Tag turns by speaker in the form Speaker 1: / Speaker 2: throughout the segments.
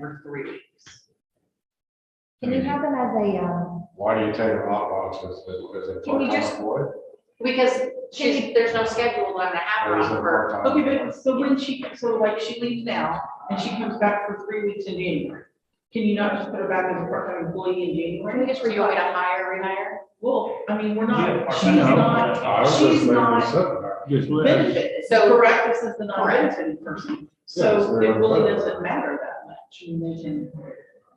Speaker 1: for three weeks.
Speaker 2: Can you have them as a, um,
Speaker 3: Why do you tell your lockboxes that because it's
Speaker 4: Can we
Speaker 3: part
Speaker 4: just-
Speaker 3: time employee?
Speaker 4: Because she's, there's no schedule on the half
Speaker 3: Or is it
Speaker 4: on her.
Speaker 3: part-time?
Speaker 1: Okay, but so when she, so like she leaves now and she comes back for three weeks in January, can you not just put her back as a part-time employee in
Speaker 4: Can we
Speaker 1: January?
Speaker 4: just renew it a higher, rehire?
Speaker 1: Well, I mean, we're
Speaker 5: Yeah,
Speaker 1: not,
Speaker 5: part-time.
Speaker 1: she's not
Speaker 3: I was just
Speaker 1: She's
Speaker 3: making
Speaker 1: not-
Speaker 3: this up.
Speaker 5: Just let,
Speaker 1: benefited,
Speaker 4: So-
Speaker 1: so correct, this is the
Speaker 4: Correct.
Speaker 1: non-benefited person.
Speaker 3: Yes,
Speaker 1: So
Speaker 3: they're
Speaker 1: it really
Speaker 3: unfettered.
Speaker 1: doesn't matter that much, I mean, they can.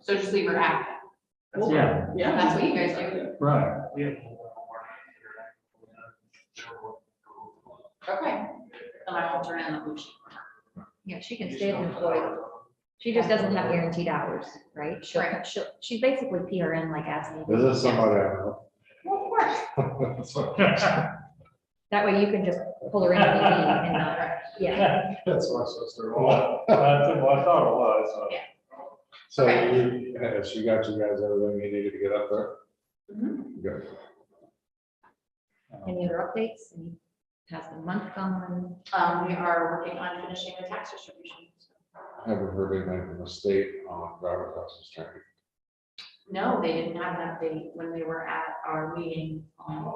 Speaker 4: So just leave her active.
Speaker 1: well,
Speaker 5: yeah,
Speaker 1: Yeah.
Speaker 4: That's what you guys do.
Speaker 5: right.
Speaker 4: Okay. And I will turn in the motion.
Speaker 2: yeah, she can stay employed. She just doesn't have guaranteed hours, right? She'll,
Speaker 4: Right.
Speaker 2: she'll, she's basically PRN like asking.
Speaker 3: This is somebody I know.
Speaker 4: Well, of course.
Speaker 2: That way you can just pull her in if you need and not, yeah.
Speaker 3: That's my sister.
Speaker 5: That's what I thought it was.
Speaker 4: Yeah.
Speaker 3: So
Speaker 4: Okay.
Speaker 3: you, uh, she got you guys everything you needed to get up there?
Speaker 1: Mm-hmm.
Speaker 3: Good.
Speaker 2: Any other updates? Any- How's the month gone?
Speaker 4: Um, we are working on finishing the tax distribution.
Speaker 3: Haven't heard anything from the state on driver's license training.
Speaker 4: No, they didn't have an update when we were at our meeting. um,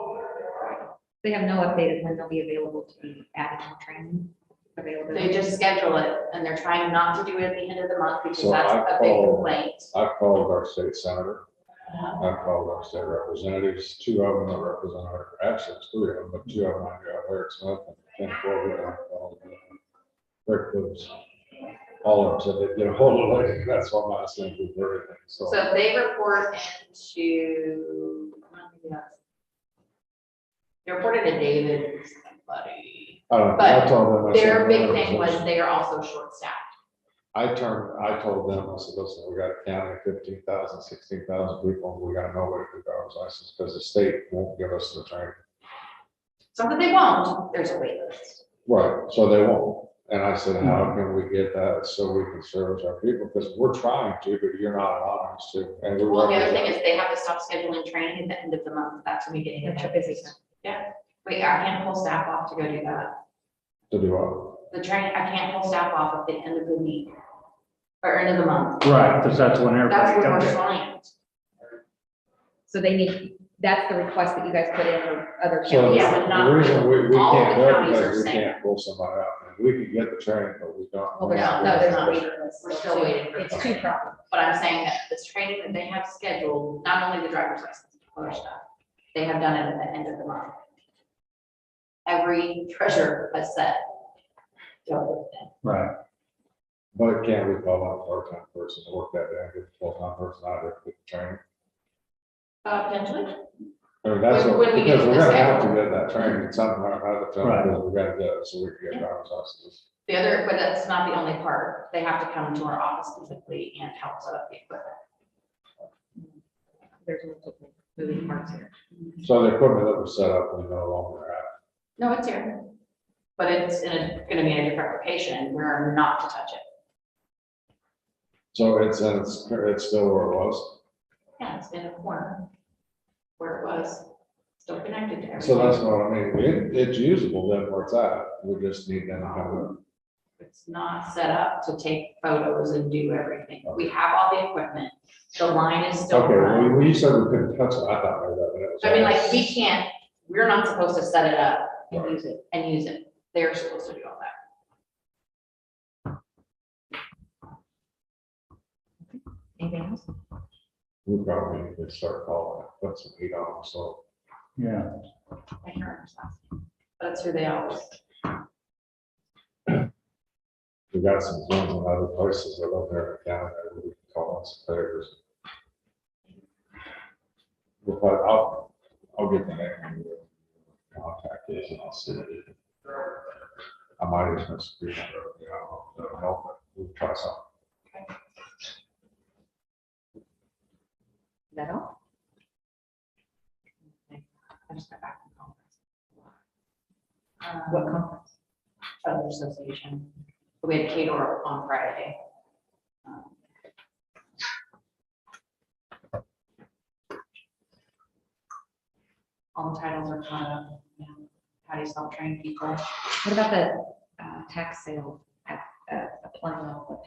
Speaker 2: They have no update of when they'll be available to be adding more training availability.
Speaker 4: They just schedule it and they're trying not to do it at the end of the month because
Speaker 3: So
Speaker 4: that's
Speaker 3: I
Speaker 4: a big
Speaker 3: called-
Speaker 4: complaint.
Speaker 3: I called our state senator.
Speaker 4: Uh,
Speaker 3: I called our state representatives, two of them that represent our, actually, it's three of them, but two of them, I got Eric Smith and Ken Corley. and I called, uh, Rick Woods. All of them said they'd get a hold of it, that's why my last name was everything, so.
Speaker 4: So they report into. I don't think that's- They reported to David, somebody.
Speaker 3: I don't know, I
Speaker 4: but
Speaker 3: told them. I said,
Speaker 4: Their big
Speaker 3: "Whatever,
Speaker 4: thing
Speaker 3: it's-
Speaker 4: was they are also short staffed.
Speaker 3: I turned, I told them, I said, listen, we got a county of 15,000, 16,000 people, and we got nobody with driver's license, because the state won't give us the training.
Speaker 4: It's not that they won't, there's a wait list.
Speaker 3: Right, so they won't, and I said, how can we get that so we can service our people, because we're trying to, but you're not allowing us to, and we
Speaker 4: Well, the other thing
Speaker 3: represent.
Speaker 4: is they have to stop scheduling training at the end of the month. That's when we get into
Speaker 2: That's your
Speaker 4: that
Speaker 2: busy
Speaker 4: business.
Speaker 2: time.
Speaker 4: Wait, I can't pull staff off to go do that.
Speaker 3: To do what?
Speaker 4: The train, I can't pull staff off at the end of the week or end of the month.
Speaker 5: Right, because that's when
Speaker 4: That's
Speaker 5: everybody
Speaker 4: when
Speaker 5: comes
Speaker 4: we're
Speaker 5: in.
Speaker 4: slammed.
Speaker 2: So they need, that's the request that you guys put in for other
Speaker 3: So
Speaker 2: counties.
Speaker 4: Yeah, but
Speaker 3: the
Speaker 4: not-
Speaker 3: reason we, we
Speaker 4: all
Speaker 3: can't
Speaker 4: the
Speaker 3: do it,
Speaker 4: counties are
Speaker 3: because we
Speaker 4: saying-
Speaker 3: can't pull somebody out, and we can get the training, but we don't.
Speaker 2: Well, they're not-
Speaker 4: No, they're not.
Speaker 2: waiting lists.
Speaker 4: We're still waiting for
Speaker 2: It's
Speaker 4: that.
Speaker 2: two problems.
Speaker 4: But I'm saying that this training that they have scheduled, not only the driver's license, but other stuff, they have done it at the end of the month. Every treasurer has said. "Don't do
Speaker 5: Right.
Speaker 3: But it can't we call on a part-time person to work that day, and get a full-time person out of the training?
Speaker 4: that." Uh, potentially,
Speaker 3: I mean, that's,
Speaker 4: When-
Speaker 3: what-
Speaker 4: when we get
Speaker 3: because
Speaker 4: to
Speaker 3: we're
Speaker 4: the
Speaker 3: gonna have to
Speaker 4: schedule.
Speaker 3: get that training somehow or another,
Speaker 5: Right.
Speaker 3: because we gotta get it, so we can get driver's licenses.
Speaker 4: the other, but that's not the only part, they have to come to our office physically and help set up the equipment.
Speaker 2: There's multiple moving parts here.
Speaker 3: So the equipment that was set up, we no longer have.
Speaker 4: No, it's here, but it's in a, gonna be in a different location, we're not to touch it.
Speaker 3: So it's, uh, it's, it's still where it was.
Speaker 4: Yeah, it's in a corner where it was, still connected to everything.
Speaker 3: So that's what I mean. It, it's usable then where it's at. We just need to know
Speaker 4: It's not set up to take photos and do everything. We have all the equipment. The line is
Speaker 3: how.
Speaker 4: still
Speaker 3: Okay, well,
Speaker 4: run.
Speaker 3: you- when you said we couldn't touch it, I thought maybe that was.
Speaker 4: I mean, like, we can't, we're not supposed to set it up
Speaker 2: and use it.
Speaker 4: and use it. They're supposed to do all that.
Speaker 2: Anything else?
Speaker 3: We probably need to start calling, it, put some heat on, it, so.
Speaker 5: Yeah.
Speaker 4: I can't remember his last name. That's who they always,
Speaker 3: We got some zones in other places that live there in Canada, we can call on some players. But I'll, I'll get the name and the contact is and I'll see. I might even screen it, you know, that'll help, but we'll try something.
Speaker 2: Is that all?
Speaker 4: I just got back from Congress.
Speaker 2: What
Speaker 4: Um,
Speaker 2: conference?
Speaker 4: Other association. We had Cador on Friday. Um, All the titles are caught up. you know, How do you self-train people?
Speaker 2: What about the uh, tax sale at, uh, the Plano?